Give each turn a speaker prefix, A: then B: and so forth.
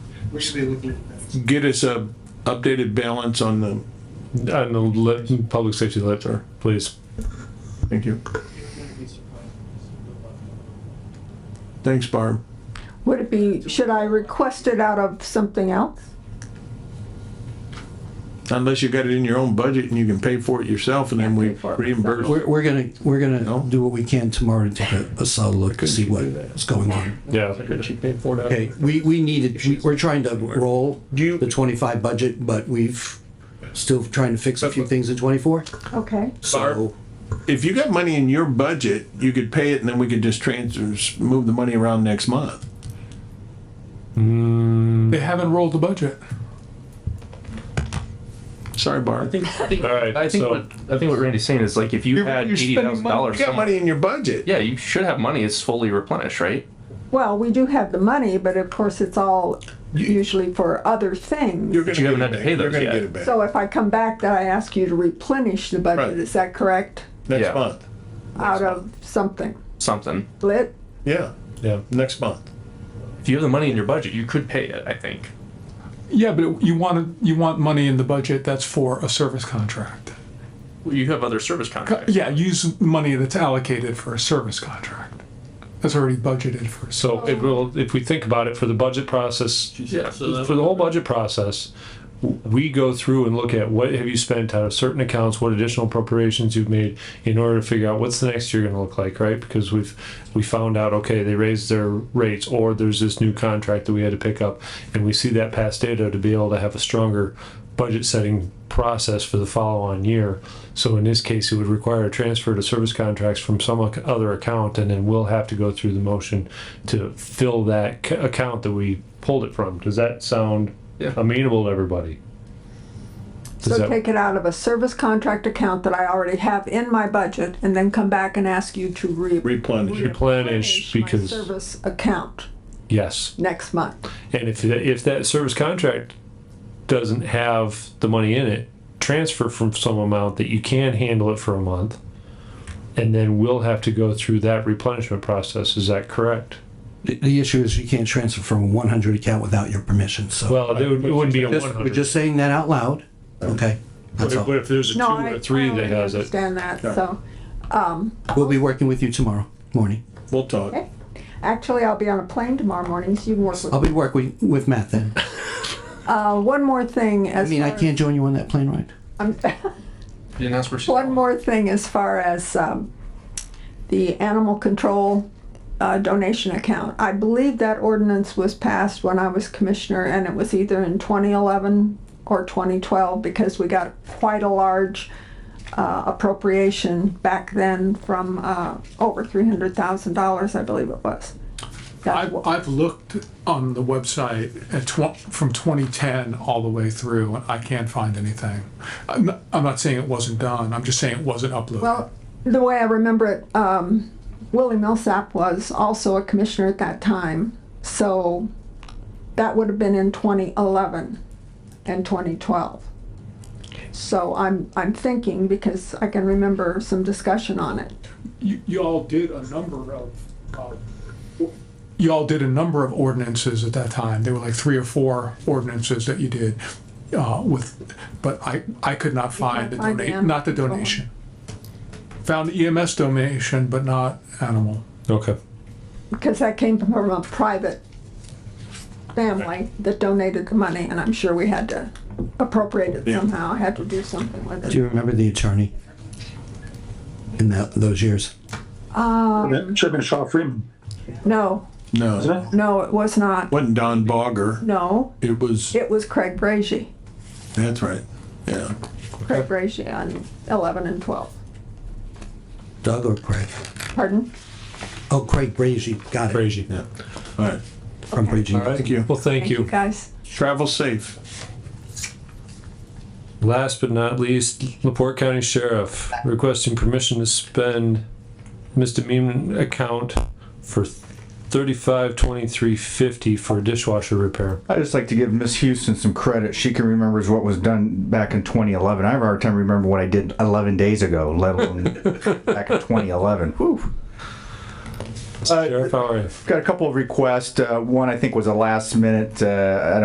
A: we should be looking at that.
B: get us a updated balance on the,
C: on the lit, public safety letter, please.
B: thank you. Thanks, Barb.
D: Would it be, should I request it out of something else?
B: Unless you got it in your own budget and you can pay for it yourself and then we
D: Pay for it
B: reimburse.
E: We're, we're gonna, we're
B: No?
E: gonna do what we can tomorrow to take a, a solid look, to see what's going on.
C: Yeah.
B: She paid for it out of-
E: Okay, we, we needed, we- we're trying to roll the twenty-five budget, but we've still trying to fix a few things in twenty-four,
D: Okay.
E: so.
B: If you got money in your budget, you could pay it and then we could just transfer, move the money around next month. Mm.
F: They haven't rolled the budget.
B: Sorry, Barb.
G: think, I think,
C: All right,
G: I think
C: so-
G: what I think what Randy's saying is like if you
B: You're-
G: had
B: you're
G: eighty
B: spending
G: thousand
B: money-
G: dollars,
B: You got money in your budget.
G: yeah, you should have money. It's fully replenished, right?
D: Well, we do have the money, but of course, it's all usually for other things.
B: gonna
G: you
B: get
G: haven't had
B: it
G: to pay
B: back. You're
G: those
B: gonna
G: yet.
B: get it back.
D: So if I come back, then I ask you to replenish the budget,
B: Right.
D: is that correct?
B: Next
G: Yeah.
B: month.
D: Out of something,
G: Something.
D: lit?
B: Yeah.
C: Yeah.
B: Next month.
G: If you have the money in your budget, you could pay it. I think.
F: Yeah, but it- you want, you want money in the budget that's for a service contract.
G: Well, you have other service contracts.
F: Yeah, use money that's allocated for a service contract. That's already budgeted for. a
C: So it will, if we think about it for the budget process,
G: Yeah, so that-
C: for the whole budget process, w- we go through and look at what have you spent out of certain accounts, what additional appropriations you've made in order to figure out what's the next year gonna look like, right? Because we've, we found out, okay, they raised their rates or there's this new contract that we had to pick up. And we see that past data to be able to have a stronger budget setting process for the follow-on year. So in this case, it would require a transfer to service contracts from some ac- other account, and then we'll have to go through the motion to fill that c- account that we pulled it from. Does that sound
G: Yeah.
C: amenable to everybody? Does
D: So
C: that-
D: take it out of a service contract account that I already have in my budget, and then come back and ask you to re-
B: Replenish.
C: replenish
D: my
C: because,
D: service account
C: yes.
D: next month.
C: And if, tha- if that service contract doesn't have the money in it, transfer from some amount that you can handle it for a month. And then we'll have to go through that replenishment process. Is that correct?
E: The, the issue is you can't transfer from one hundred account without your permission, so.
C: Well, it would- it wouldn't be a
E: Just-
C: one
E: We're
C: hundred.
E: just saying that out loud, okay? That's all.
C: But if there's a two
D: No,
C: or
D: I,
C: a
D: I
C: three that
D: already
C: has it,
D: understand that, so,
E: We'll be working with you tomorrow morning.
B: We'll talk.
D: actually, I'll be on a plane tomorrow morning, so you can work with
E: I'll be working with Matt then.
D: Uh, one more thing as
E: I mean, I
D: far-
E: can't join you on that plane ride.
D: I'm-
G: You didn't ask for
D: one more thing as far as um, the animal control uh, donation account. I believe that ordinance was passed when I was commissioner, and it was either in 2011 or 2012 because we got quite a large uh, appropriation back then from uh, over $300,000, I believe it was. That's
F: I've,
D: what-
F: I've looked on the website at tw- from 2010 all the way through, and I can't find anything. I'm not, I'm not saying it wasn't done. I'm just saying it wasn't uploaded.
D: Well, the way I remember it, um, Willie Millsap was also a commissioner at that time, so that would have been in 2011 and 2012. So I'm, I'm thinking, because I can remember some discussion on it.
F: you, you all did a number of, um, you all did a number of ordinances at that time. There were like three or four ordinances that you did uh, with, but I, I could not find the
D: find the
F: donation,
D: animal
F: not the
D: control.
F: donation. Found EMS donation, but not animal.
C: okay.
D: because that came from a private family that donated the money, and I'm sure we had to appropriate it somehow, had to do something with
E: Do
D: it.
E: you remember the attorney? In that, those years?
H: Should have been Shaw Freeman.
D: No,
B: No,
D: no, it was not.
B: wasn't Don Bogger.
D: No,
B: It was,
D: it was Craig Bragy.
B: that's right. Yeah.
D: Craig Brazier on 11 and 12.
E: Doug or Craig?
D: Pardon?
E: Oh, Craig Brazy, got it,
C: Crazy.
B: Yeah. All right.
E: from Brazy.
B: Thank you.
C: Well, thank you.
D: Guys,
B: Travel safe.
C: Last but not least, Laporte County Sheriff requesting permission to spend misdemeanor account for thirty-five twenty-three fifty for dishwasher repair.
I: I just like to give Miss Houston some credit. She can remembers what was done back in 2011. I have a hard time remembering what I did 11 days ago, let alone back in 2011. Whew.
C: Sheriff, how are you?
I: Got a couple of requests. Uh, one I think was a last minute. Uh, I